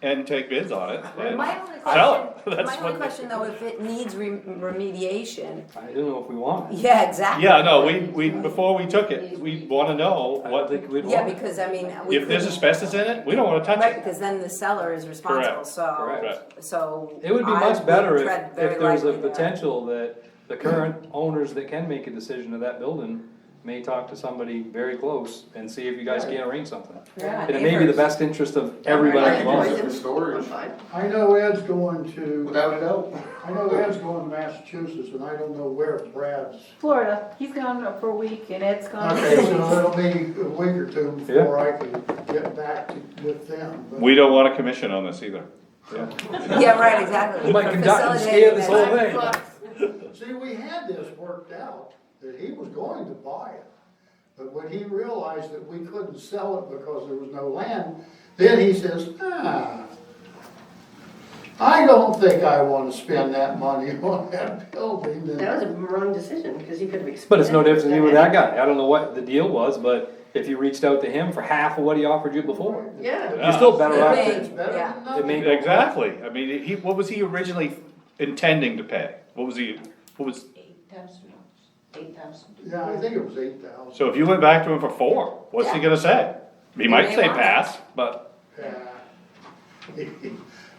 and take bids on it. and My only Sell it, question, that's my what only they- question though, if it needs re- remediation, I don't know if we want it. yeah, exactly. Yeah, no, we, we, before we took it, we wanna know I don't what, think we'd Yeah, want it. because I mean, we if there's couldn't- asbestos in it, we don't wanna touch Right, it. because then the seller is responsible, Correct, so, correct. Right. so. It would be I much better if, tread very if there was a lightly there. potential that the current owners that can make a decision of that building may talk to somebody very close and see if you guys can't arrange something. Yeah, And it may be the neighbors. best interest of everybody involved. For storage. I know Ed's going to, Without a doubt. I know Ed's going to Massachusetts, and I don't know where Brad's. Florida, he's gone for a week and Ed's gone. Okay, so it'll be a week or two Yeah. before I can get back to- with them. but- We don't want a commission on this either. Yeah, right, exactly. You might conduct and scare this whole thing. See, we had this worked out, that he was going to buy it. But when he realized that we couldn't sell it because there was no land, then he says, ah, I don't think I want to spend that money on that building. And That was a wrong decision, because you could have expanded. But it's no difference with that guy. guy, I don't know what the deal was, but if you reached out to him for half of what he offered you before, Yeah. you're still better off It's to, better Yeah. than nothing. It may- Exactly, I mean, he, what was he originally intending to pay? What was he, what was, Eight thousand dollars, eight thousand. Yeah, I think it was eight thousand. so if you went back to him for four, what's he gonna say? He might may say want it. pass, but.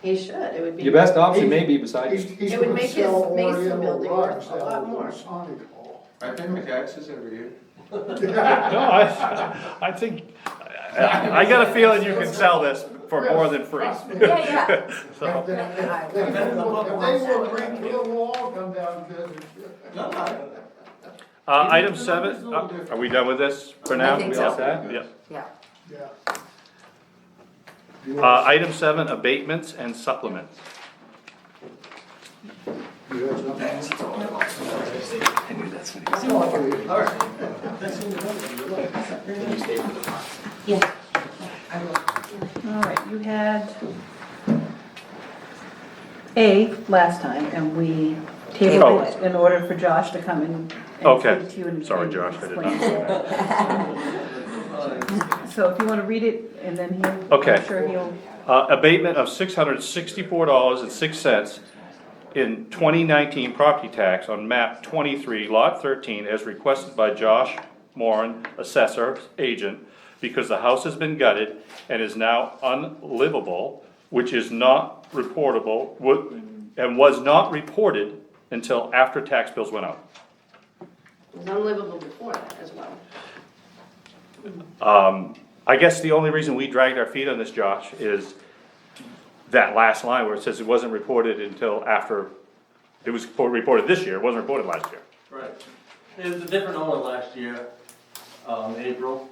He should, it would be. your best option may be beside He's, you. he's It would gonna make his sell Mason Oriental building worth rugs a lot out of more. Masonic Hall. I pay my taxes every year. No, I, I think, I I got a feeling you can sell this for more than free. Trust me. Yeah, yeah. So, If they will bring to the wall, come down and visit. Uh, item seven, uh, are we done with this for now? I think We all set? Yeah. Yeah. Yeah. Uh, item seven, abatements and supplements. You have something? Alright, you had A last time and we Oh. tabled it in order for Josh to come and. and Okay. speak to you and- Sorry, and Josh, I did explain it. So if you wanna read it and then he'll. Okay. I'm Sure he'll. Uh, abatement of six hundred sixty-four dollars and six cents in twenty nineteen property tax on map twenty-three, lot thirteen, as requested by Josh Moran, assessor, agent, because the house has been gutted and is now unlivable, which is not reportable, wa- and was not reported until after tax bills went out. It was unlivable before that as well. I guess the only reason we dragged our feet on this, Josh, is that last line where it says it wasn't reported until after, it was report- reported this year, it wasn't reported last year. Right. It was a different owner last year, um, April.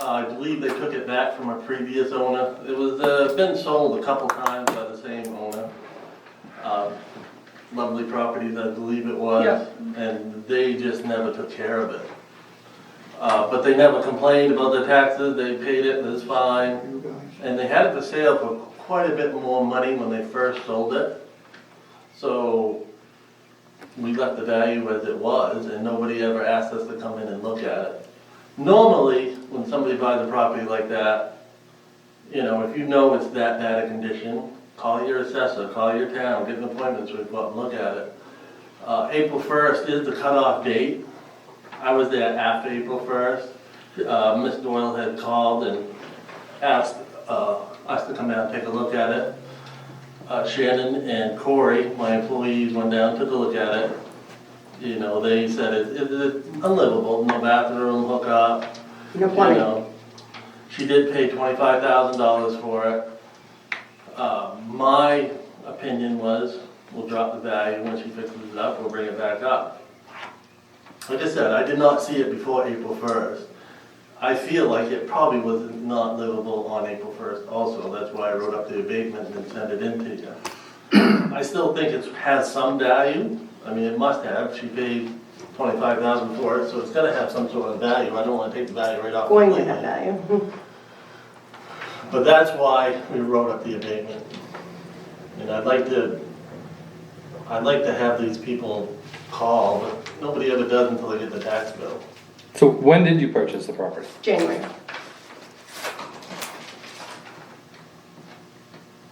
Uh, I believe they took it back from a previous owner. It was, uh, been sold a couple times by the same owner. Um, Lovely properties, I believe it was, and they just never took care of it. Uh, but they never complained about the taxes, they paid it, it was fine. And they had it for sale for quite a bit more money when they first sold it. So we left the value as it was, and nobody ever asked us to come in and look at it. Normally, when somebody buys a property like that, you know, if you know it's that bad a condition, call your assessor, call your town, get an appointment so we can go out and look at it. Uh, April first is the cutoff date. I was there after April first. Uh, Ms. Doyle had called and asked, uh, us to come out and take a look at it. Uh, Shannon and Corey, my employees, went down, took a look at it. You know, they said it, it, it's unlivable, no bathroom hookup, No you plumbing. know. She did pay twenty-five thousand dollars for it. Uh, my opinion was, we'll drop the value, when she fixes it up, we'll bring it back up. Like I said, I did not see it before April first. I feel like it probably was not livable on April first also, that's why I wrote up the abatement and sent it in to you. I still think it has some value, I mean, it must have, she paid twenty-five thousand for it, so it's gonna have some sort of value, I don't wanna take the value right off. Going to completely. have value. But that's why we wrote up the abatement. And I'd like to, I'd like to have these people call, but nobody ever does until they get the tax bill. So when did you purchase the property? January.